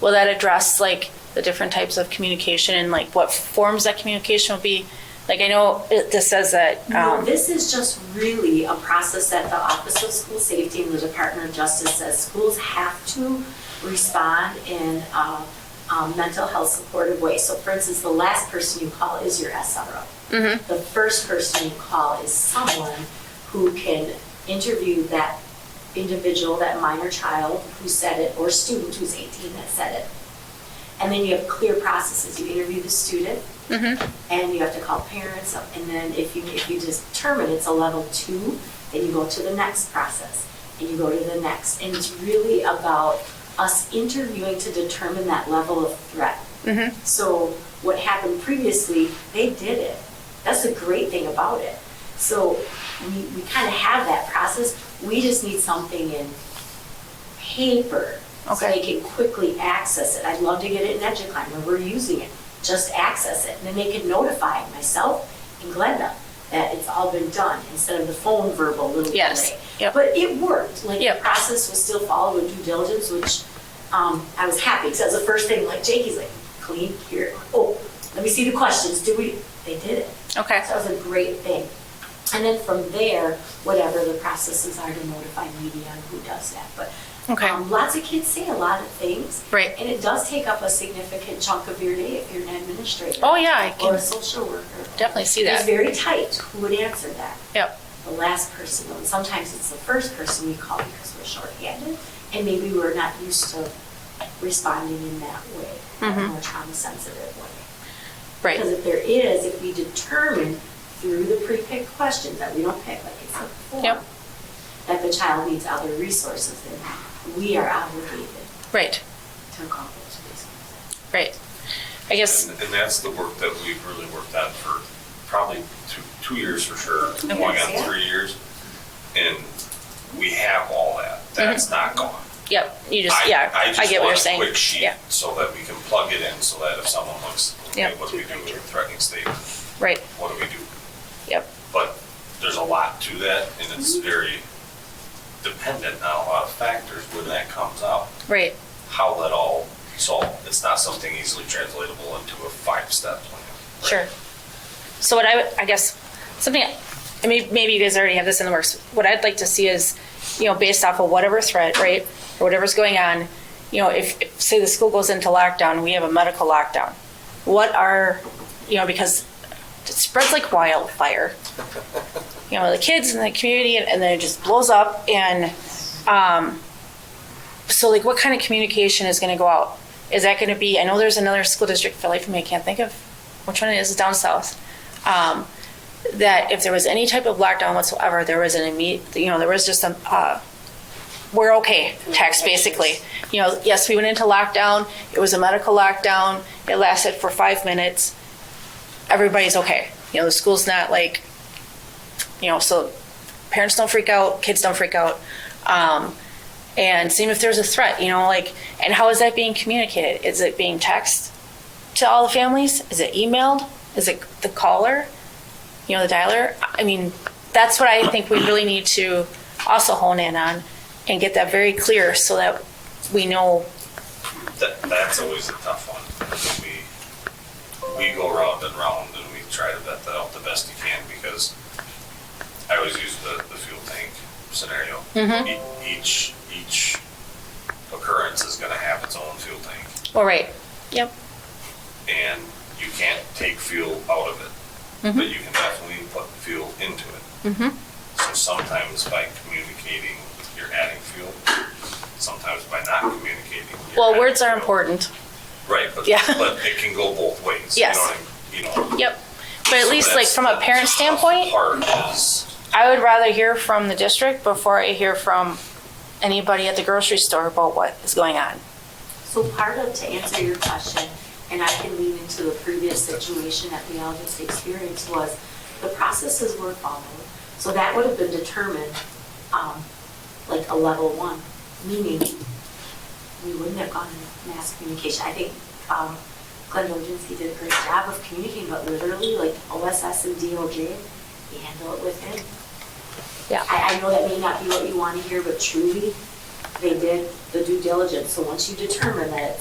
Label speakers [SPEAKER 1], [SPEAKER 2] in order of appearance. [SPEAKER 1] will that address like the different types of communication and like what forms that communication will be? Like I know it, this says that,
[SPEAKER 2] No,
[SPEAKER 1] um,
[SPEAKER 2] this is just really a process that the Office of School Safety and the Department of Justice says schools have to respond in a, um, mental health supportive way. So for instance, the last person you call is your SRO.
[SPEAKER 1] Mhm.
[SPEAKER 2] The first person you call is someone who can interview that individual, that minor child who said it, or student who's 18 that said it. And then you have clear processes. You interview the student, and you have to call parents, and then if you, if you determine it's a level two, then you go to the next process, and you go to the next, and it's really about us interviewing to determine that level of threat.
[SPEAKER 1] Mhm.
[SPEAKER 2] So what happened previously, they did it. That's the great thing about it. So we, we kind of have that process, we just need something in paper, so
[SPEAKER 1] Okay.
[SPEAKER 2] they can quickly access it. I'd love to get it in EduClimb where we're using it, just access it. And then they can notify myself and Glenda that it's all been done instead of the phone verbal little
[SPEAKER 1] Yes,
[SPEAKER 2] thing.
[SPEAKER 1] yep.
[SPEAKER 2] But it worked, like the
[SPEAKER 1] Yep.
[SPEAKER 2] process was still followed with due diligence, which um, I was happy because that was the first thing, like Jakey's like, clean here, oh, let me see the questions, do we, they did it.
[SPEAKER 1] okay,
[SPEAKER 2] That was a great thing. And then from there, whatever the processes are to notify media and who does that. But
[SPEAKER 1] Okay.
[SPEAKER 2] um, lots of kids say a lot of things.
[SPEAKER 1] Right.
[SPEAKER 2] And it does take up a significant chunk of your day if you're an administrator.
[SPEAKER 1] Oh, yeah, I
[SPEAKER 2] Or
[SPEAKER 1] can
[SPEAKER 2] a social worker.
[SPEAKER 1] definitely see
[SPEAKER 2] It's
[SPEAKER 1] that.
[SPEAKER 2] very tight. Who would answer that?
[SPEAKER 1] Yep,
[SPEAKER 2] The last person. And sometimes it's the first person we call because we're shorthanded and maybe we're not used to responding in that way, that
[SPEAKER 1] Mhm.
[SPEAKER 2] more trauma sensitive way. Because
[SPEAKER 1] right,
[SPEAKER 2] if there is, if we determine through the pre-picked questions that we don't pick, like it's a form,
[SPEAKER 1] Yep.
[SPEAKER 2] that the child needs other resources, then we are obligated
[SPEAKER 1] right,
[SPEAKER 2] to accomplish these.
[SPEAKER 1] right. I guess,
[SPEAKER 3] And and that's the work that we've really worked on for probably two, two years for sure,
[SPEAKER 2] Two
[SPEAKER 3] going
[SPEAKER 2] years,
[SPEAKER 3] on
[SPEAKER 2] yeah.
[SPEAKER 3] three years. And we have all that. That's not gone.
[SPEAKER 1] yep, you just, Mm-hmm. yeah, I get what you're saying.
[SPEAKER 3] I just want a quick sheet
[SPEAKER 1] Yeah,
[SPEAKER 3] so that we can plug it in so that if someone looks,
[SPEAKER 1] Yeah.
[SPEAKER 3] okay, what do we do with a threatening statement?
[SPEAKER 1] right,
[SPEAKER 3] What do we do?
[SPEAKER 1] yep,
[SPEAKER 3] But there's a lot to that and it's
[SPEAKER 1] Mm-hmm.
[SPEAKER 3] very dependent on a lot of factors when that comes out,
[SPEAKER 1] right,
[SPEAKER 3] how that all solved. It's not something easily translatable into a five-step plan. right?
[SPEAKER 1] sure. So what I would, I guess, something, I mean, maybe you guys already have this in the works. What I'd like to see is, you know, based off of whatever threat, right, or whatever's going on, you know, if, if, say the school goes into lockdown, we have a medical lockdown. What are, you know, because it spreads like wildfire. You know, the kids and the community, and, and then it just blows up. And um, so, like, what kind of communication is going to go out? Is that going to be? I know there's another school district for life of me. I can't think of which one it is. It's down south. Um, that if there was any type of lockdown whatsoever, there was an immediate. You know, there was just some. Uh, we're okay. Text basically. You know, yes, we went into lockdown. It was a medical lockdown. It lasted for five minutes everybody's okay. You know, the school's not like, you know, so parents don't freak out, kids don't freak out. Um, and same if there's a threat, you know, like, and how is that being communicated? Is it being text to all the families? Is it emailed? Is it the caller? You know, the dialer? I mean, that's what I think we really need to also hone in on and get that very clear so that we know,
[SPEAKER 3] That, that's always a tough one. because We, we go round and round and we try to vet that out the best you can because I always use the, the fuel tank scenario. E- each, each occurrence is gonna have its own fuel tank
[SPEAKER 1] all right, yep,
[SPEAKER 3] and you can't take fuel out of it, but you can definitely put fuel into it. So sometimes by communicating, you're adding fuel. Sometimes by not communicating. you're
[SPEAKER 1] well,
[SPEAKER 3] adding
[SPEAKER 1] words are
[SPEAKER 3] fuel.
[SPEAKER 1] important,
[SPEAKER 3] Right, but,
[SPEAKER 1] Yeah.
[SPEAKER 3] but it can go both ways.
[SPEAKER 1] Yes.
[SPEAKER 3] You know, what I- you know.
[SPEAKER 1] yep. But at least like
[SPEAKER 3] That's
[SPEAKER 1] from a
[SPEAKER 3] the
[SPEAKER 1] parent
[SPEAKER 3] tough
[SPEAKER 1] standpoint,
[SPEAKER 3] Part is,
[SPEAKER 1] I would rather hear from the district before I hear from anybody at the grocery store about what is going on.
[SPEAKER 2] So part of, to answer your question, and I can lean into the previous situation that we all just experienced, was the processes were followed. So that would have been determined, um, like a level one, meaning we wouldn't have gone in mass communication. I think, um, Glenn Ogenski did a great job of communicating, but literally, like OSS and DOJ, we handle it with him.
[SPEAKER 1] Yeah.
[SPEAKER 2] I, I know that may not be what you want to hear, but truly, they did the due diligence. So once you determine that it's